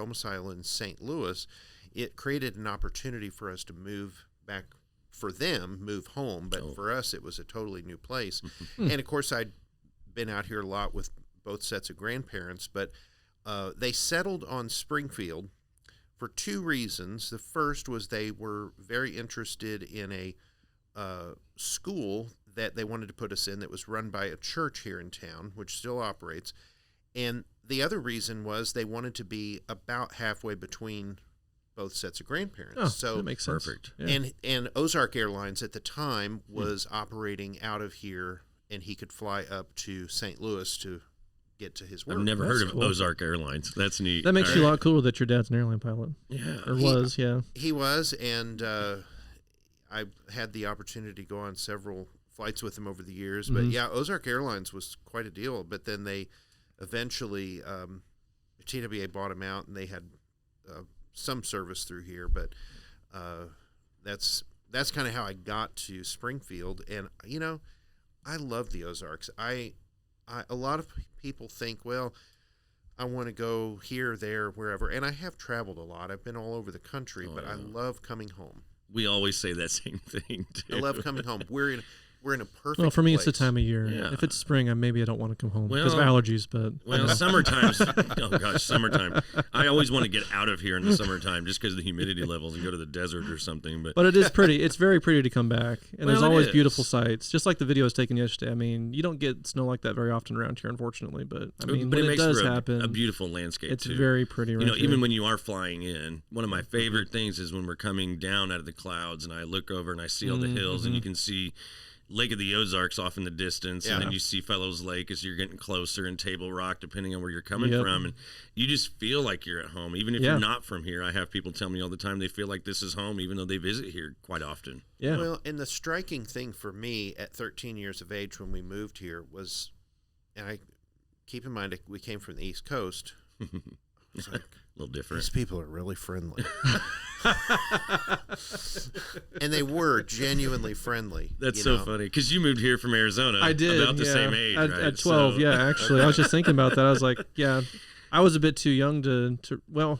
domicile in St. Louis, it created an opportunity for us to move back for them, move home. But Oh. for us, it was a totally new place. and of course, I'd been out here a lot with both sets of grandparents, but uh, they settled on Springfield for two reasons. The first was they were very interested in a uh, school that they wanted to put us in that was run by a church here in town, which still operates. And the other reason was they wanted to be about halfway between both sets of grandparents. Oh, so that makes sense. perfect. Yeah. and and Ozark Airlines at the time was operating out of here, and he could fly up to St. Louis to get to his work. I've never heard of cool. Ozark Airlines. That's neat. that makes All you a right. lot cooler that your dad's an airline pilot Yeah. or He- was. Yeah. He was, and uh, I had the opportunity to go on several flights with him over the years. But Mm-hmm. Mhm. yeah, Ozark Airlines was quite a deal. But then they eventually um, TWA bought him out, and they had uh, some service through here. But uh, that's that's kind of how I got to Springfield, and you know, I love the Ozarks. I, I a lot of people think, well, I want to go here, there, wherever, and I have traveled a lot. I've been all over the country, Oh, but I yeah. love coming home. We always say that same thing. Too. I love coming home. We're in we're in a perfect. Well, for me, it's the place. time of year. Yeah. If it's spring, I maybe I don't want to come home because Well- of allergies. But Well, summertime. oh gosh, summertime. I always want to get out of here in the summertime just because of the humidity levels and go to the desert or something. But, but it is pretty. It's very pretty to come back, and there's Well, it always beautiful is. sights. Just like the video I was taken yesterday. I mean, you don't get snow like that very often around here, unfortunately. But I mean, but when it it, makes does for a, happen, a beautiful landscape. it's too. very pretty. Right you know, here. even when you are flying in, one of my favorite things is when we're coming down out of the clouds and I look over and I see all Mm-hmm, the hills and you can see Lake of the Ozarks off in the distance, and then Yeah. you see Fellows Lake as you're getting closer and Table Rock, depending on where you're coming Yep. from, and you just feel like you're at home, even if Yeah. you're not from here. I have people tell me all the time they feel like this is home, even though they visit here quite often. yeah, Well, and the striking thing for me at 13 years of age when we moved here was, and I keep in mind we came from the East Coast. I was like, A little different. These people are really friendly. and they were genuinely friendly. That's you so know. funny because you moved here from Arizona. I did about the yeah. same age, at, right? at 12. So- yeah, actually, I was just thinking about that. I was like, yeah, I was a bit too young to to well.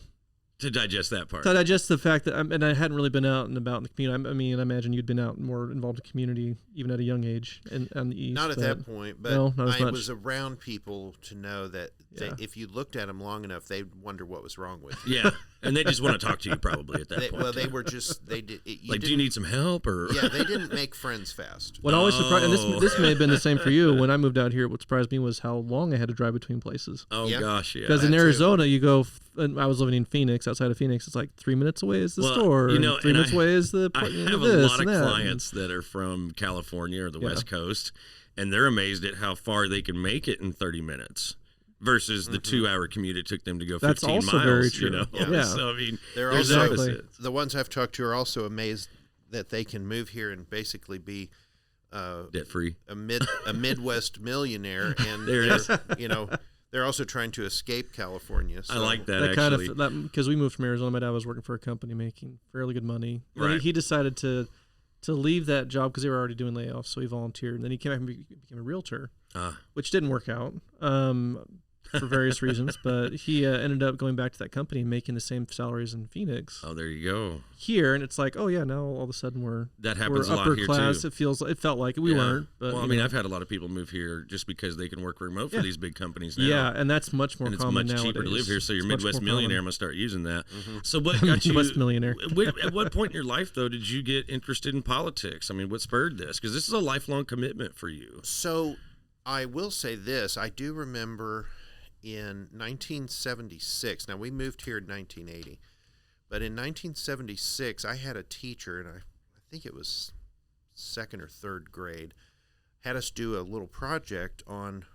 to digest that part. So I just the fact that, I'm, and I hadn't really been out and about in the community. I, I mean, I imagine you'd been out and more involved in community even at a young age, and on the east. Not at but- that point, but No, not as I much. was around people to know that they, Yeah. if you looked at them long enough, they'd wonder what was wrong with you. Yeah, and they just want to talk to you probably at that They, point. well, they too. were just they did. It, you like, do you didn't- need some help or? Yeah, they didn't make friends fast. What always surprised, and this No. this may have been the same for you when I moved out here. What surprised me was how long I had to drive between places. oh Yeah. gosh, yeah. Because in that too. Arizona, you go. f- And I was living in Phoenix, outside of Phoenix. It's like three minutes away is the Well, store. you and know, three and minutes I- away is the. I appointment have a of this lot of and that. clients that are from California or the Yeah. West Coast, and they're amazed at how far they can make it in 30 minutes versus Mm-hmm. the two-hour commute it took them to go 15 That's also miles. very You true. know, Yeah. Yeah. so I mean, They're there's also Exactly. opposites. the ones I've talked to are also amazed that they can move here and basically be uh, debt-free. a mid a Midwest millionaire, and There it they're, is. you know they're also trying to escape California. So I like that, that actually. kind of that because we moved from Arizona. My dad was working for a company making fairly good money. And Right. He, he decided to to leave that job because they were already doing layoffs, so he volunteered. And then he came back and be, became a realtor, Ah. which didn't work out um, for various reasons. But he uh, ended up going back to that company and making the same salaries in Phoenix oh, there you go. here. And it's like, oh yeah, now all of a sudden we're That we're happens a lot upper here class. too. It feels it felt like we Yeah. weren't. But well, I you mean, know. I've had a lot of people move here just because they can work remote for Yeah. these big companies now. yeah, and that's much more and it's common much cheaper to nowadays. live here. So your It's much Midwest more common. millionaire must start using that. Mm-hmm. So what got you? Midwest millionaire. wh- at what point in your life though did you get interested in politics? I mean, what spurred this? Because this is a lifelong commitment for you. So I will say this: I do remember in 1976. Now we moved here in 1980, but in 1976 I had a teacher, and I, I think it was second or third grade, had us do a little project on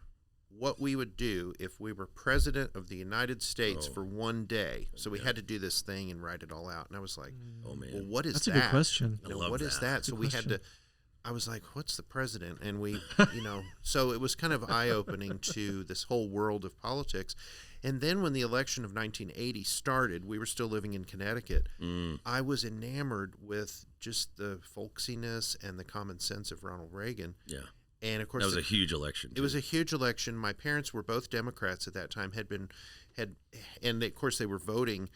what we would do if we were president of the United States Oh. for one day. So we had to do this thing and write it all out, and I was like, Oh "Well, man, what is That's a that?" good question. I you know, love what is that. that? So we had to. question. I was like, "What's the president?" And we, you know, so it was kind of eye opening to this whole world of politics. And then when the election of 1980 started, we were still living in Connecticut. Mm. I was enamored with just the folksiness and the common sense of Ronald Reagan. yeah, And of course, that was the- a huge election. it was a huge election. My parents were both Democrats at that time. had been had, and of course they were voting